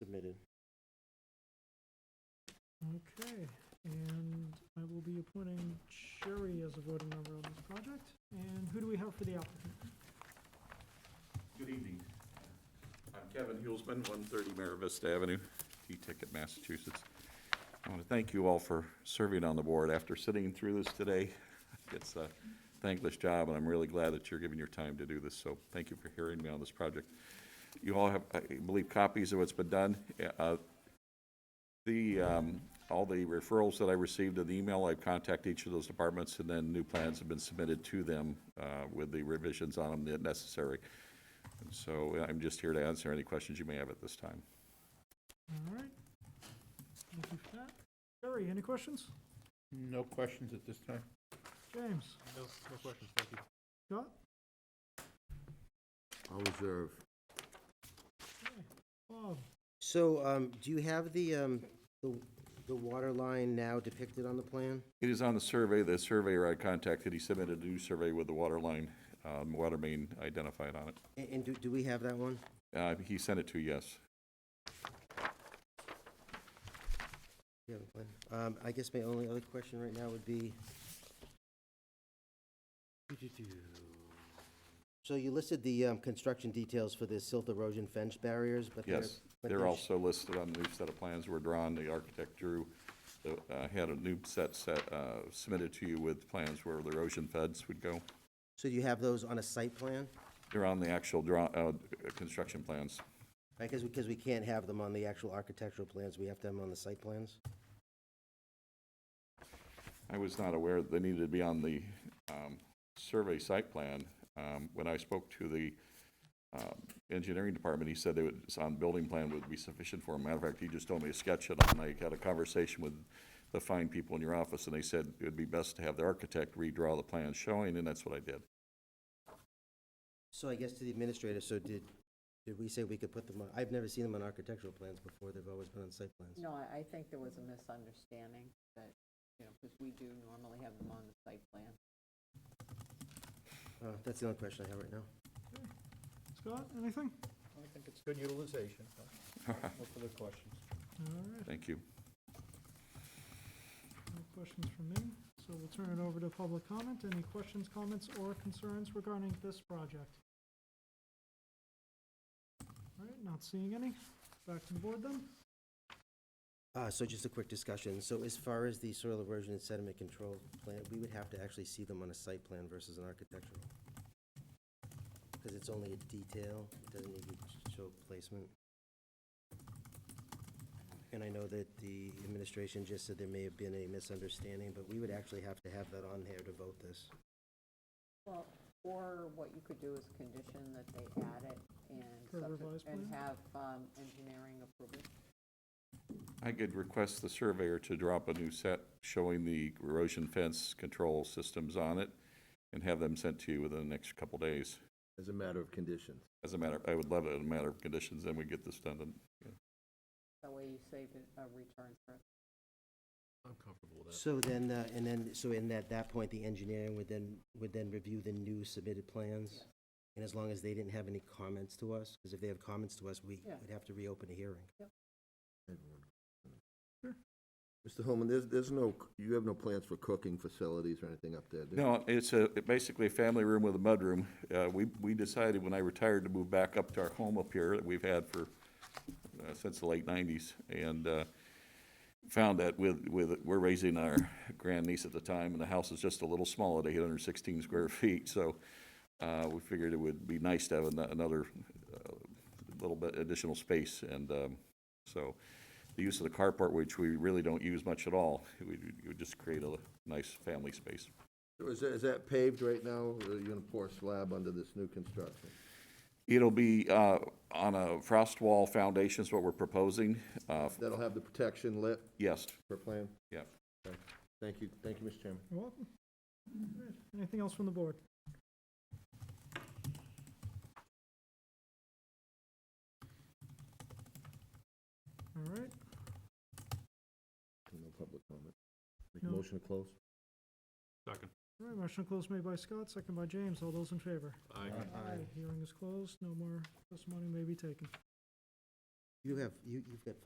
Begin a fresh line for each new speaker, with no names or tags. submitted.
Okay, and I will be appointing Sherry as a voting member on this project. And who do we have for the applicant?
Good evening. I'm Kevin Hulsman, 130 Mayor Vista Avenue, T-Ticket, Massachusetts. I want to thank you all for serving on the board. After sitting through this today, it's a thankless job, and I'm really glad that you're giving your time to do this, so thank you for hearing me on this project. You all have, I believe, copies of what's been done. Uh, The, um, all the referrals that I received in the email, I've contacted each of those departments, and then new plans have been submitted to them uh, with the revisions on them that necessary. And So I'm just here to answer any questions you may have at this time.
All right. Thank you for that. Sherry, any questions?
No questions at this time?
James?
No, no questions, thank you.
Scott?
I'll reserve.
Okay. Bob?
So, um, do you have the, um, the, the water line now depicted on the plan?
It is on the survey, the surveyor I contacted, he submitted a new survey with the water line, um, water main identified on it.
And, and do, do we have that one?
Uh, He sent it to, yes.
Yeah, we have one. Um, I guess my only other question right now would be. So you listed the, um, construction details for the silt erosion fence barriers, but they're.
Yes,
but
they're
sh-
also listed on the new set of plans were drawn, the architect drew, the, uh, had a new set, set, uh, submitted to you with plans where the erosion fence would go.
So you have those on a site plan?
They're on the actual draw, uh, construction plans.
I guess because we can't have them on the actual architectural plans, we have to have them on the site plans?
I was not aware that they needed to be on the um, survey site plan. Um, When I spoke to the um, engineering department, he said it was on building plan would be sufficient for him. Matter of fact, he just told me to sketch it, and I had a conversation with the fine people in your office, and they said it would be best to have the architect redraw the plan showing, and that's what I did.
So I guess to the administrator, so did, did we say we could put them on, I've never seen them on architectural plans before, they've always been on site plans.
No, I, I think there was a misunderstanding that, you know, because we do normally have them on the site plan.
Uh, That's the only question I have right now.
Scott, anything?
I think it's good utilization. No further questions.
All right,
Thank you.
no questions from me. So we'll turn it over to public comment. Any questions, comments, or concerns regarding this project? All right, not seeing any. Back to the board then.
Uh, So just a quick discussion, so as far as the soil erosion and sediment control plan, we would have to actually see them on a site plan versus an architectural. Because it's only a detail, it doesn't need to show placement. And I know that the administration just said there may have been a misunderstanding, but we would actually have to have that on there to vote this.
Well, or what you could do is condition that they add it and,
For a
subse-
revised
and
plan?
have, um, engineering approve it.
I could request the surveyor to drop a new set showing the erosion fence control systems on it and have them sent to you within the next couple days.
As a matter of conditions.
As a matter, I would love it as a matter of conditions, then we get this done in
That way you save it a return trip.
I'm comfortable with
So then, uh, and then, so in at that point, the engineering would then, would then review the new submitted plans?
Yes.
And as long as they didn't have any comments to us, because if they have comments to us, we
Yeah.
would have to reopen a hearing.
Mr. Holman, there's, there's no, you have no plans for cooking facilities or anything up there, do you?
No, it's a, basically a family room with a mudroom. Uh, we, we decided when I retired to move back up to our home up here that we've had for, uh, since the late nineties. And, uh, found that with, with, we're raising our grandniece at the time and the house is just a little small at eight hundred and sixteen square feet. So, uh, we figured it would be nice to have ano- another, uh, little bit additional space. And, um, so the use of the carport, which we really don't use much at all, it would, it would just create a nice family space.
Or Is that, is that paved right now, or are you gonna pour slab under this new construction?
It'll be uh, on a frost wall foundation is what we're proposing. Uh,
That'll have the protection lit
Yes,
per plan?
Yep.
Okay. Thank you, thank you, Mr. Chairman.
You're welcome. All right, Anything else from the board? All right,
No public comment. Make
No.
a motion to close?
that. Second.
all right, motion to close made by Scott, second by James. All those in favor?
Aye.
Hearing is closed, no more testimony may be taken.
You have, you, you've got